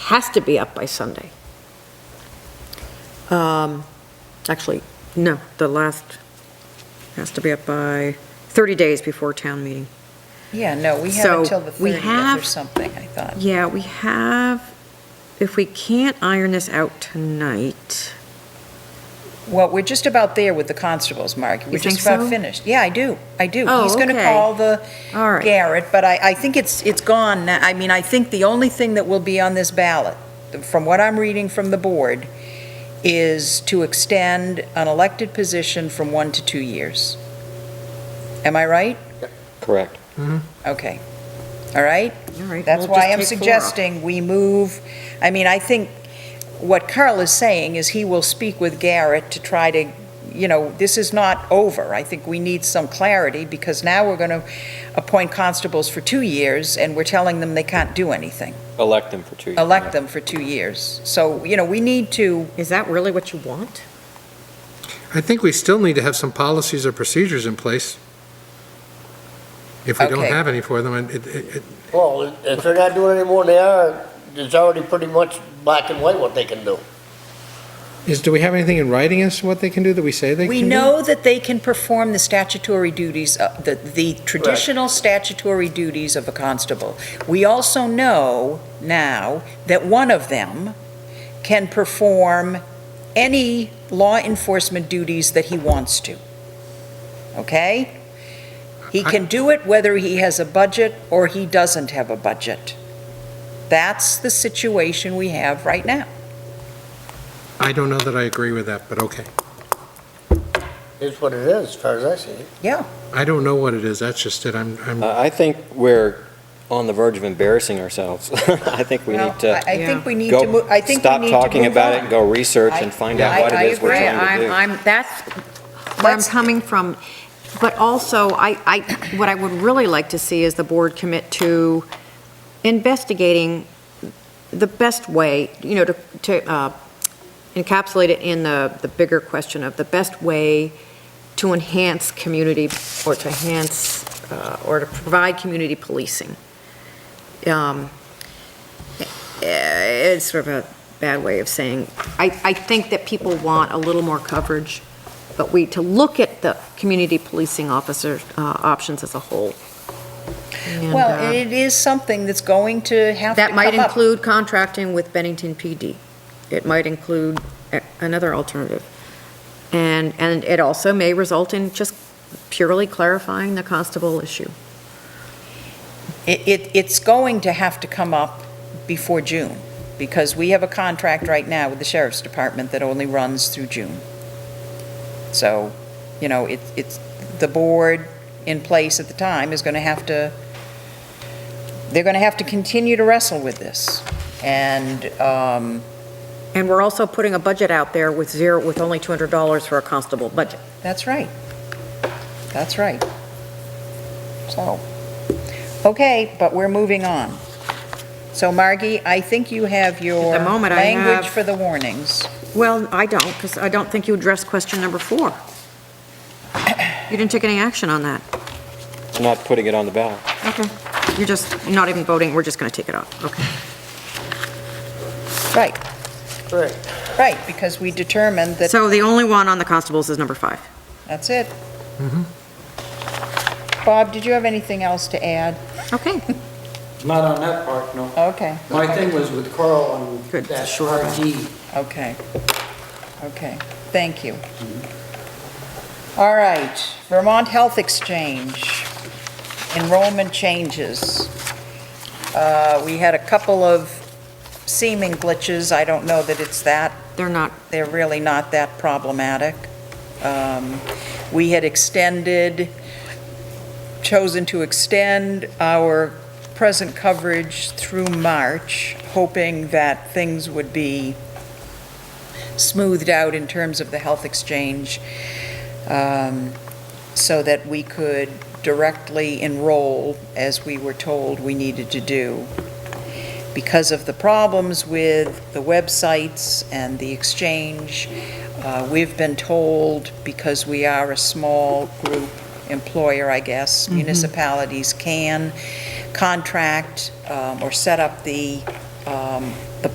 has to be up by Sunday. Um, Actually, no, the last, has to be up by 30 days before town meeting. Yeah, no, we So, have until the we 30th or have- something, I thought. Yeah, we have, if we can't iron this out tonight, Well, we're just about there with the constables, Mark. We're You think just about so? finished. Yeah, I do, I do. Oh, He's going to okay. call the all right. Garrett, but I, I think it's, it's gone. now. I mean, I think the only thing that will be on this ballot, from what I'm reading from the board, is to extend an elected position from one to two years. Am I right? Correct. Mm-hmm. Okay. All right? All right, That's we'll why just I'm take four off. suggesting we move, I mean, I think what Carl is saying is he will speak with Garrett to try to, you know, this is not over. I think we need some clarity, because now we're going to appoint constables for two years, and we're telling them they can't do anything. Elect them for two years. Elect them for two years. So, you know, we need to, Is that really what you want? I think we still need to have some policies or procedures in place. If we don't Okay. have any for them, and it, it, it- Well, if they're not doing any more than they are, it's already pretty much black and white what they can do. is, do we have anything in writing as to what they can do that we say they can we do? know that they can perform the statutory duties, uh, the, the traditional statutory duties of a constable. We also know now that one of them can perform any law enforcement duties that he wants to. Okay? He can do it whether he has a budget or he doesn't have a budget. That's the situation we have right now. I don't know that I agree with that, but okay. It's what it is, as far as I see it. I don't know what it is, that's just it, I'm, I'm, I I think we're on the verge of embarrassing ourselves. I think we Well, need to I I think we need to, go, mo- I think we stop need to talking move about on. it and go research and I- find yeah, out what I- it is we're I agree. trying to do. I'm, that's where I'm Let's- coming from. But also, I, I, what I would really like to see is the board commit to investigating the best way, you know, to, to uh, encapsulate it in the, the bigger question of the best way to enhance community, or to enhance, uh, or to provide community policing. Um, eh, It's sort of a bad way of saying, I, I think that people want a little more coverage, but we, to look at the community policing officer uh, options as a whole. And, uh, Well, it is something that's going to have to That come might up. include contracting with Bennington PD. It might include a- another alternative. And, and it also may result in just purely clarifying the constable issue. It, it, it's going to have to come up before June, because we have a contract right now with the sheriff's department that only runs through June. So, you know, it, it's, the board in place at the time is gonna have to, they're gonna have to continue to wrestle with this. And, um, And we're also putting a budget out there with zero, with only $200 for a constable budget. that's right. That's right. So, okay, but we're moving on. So Margie, I think you have your moment, I language have- for the warnings. Well, I don't, because I don't think you addressed question number four. You didn't take any action on that. I'm not putting it on the ballot. Okay. You're just not even voting, we're just going to take it off. Okay. Right, Right. right, because we determined that, So the only one on the constables is number five. that's it. Mm-hmm. Bob, did you have anything else to add? Okay. Not on that part, no. Okay, My thing was with Carl on Good, that sure. RD. okay, okay, thank you. All right, Vermont Health Exchange, enrollment changes. Uh, We had a couple of seeming glitches, I don't know that it's that They're not, they're really not that problematic. Um, We had extended, chosen to extend our present coverage through March, hoping that things would be smoothed out in terms of the health exchange, um, so that we could directly enroll as we were told we needed to do because of the problems with the websites and the exchange. uh, We've been told, because we are a small group employer, I guess, municipalities can contract um, or set up the um,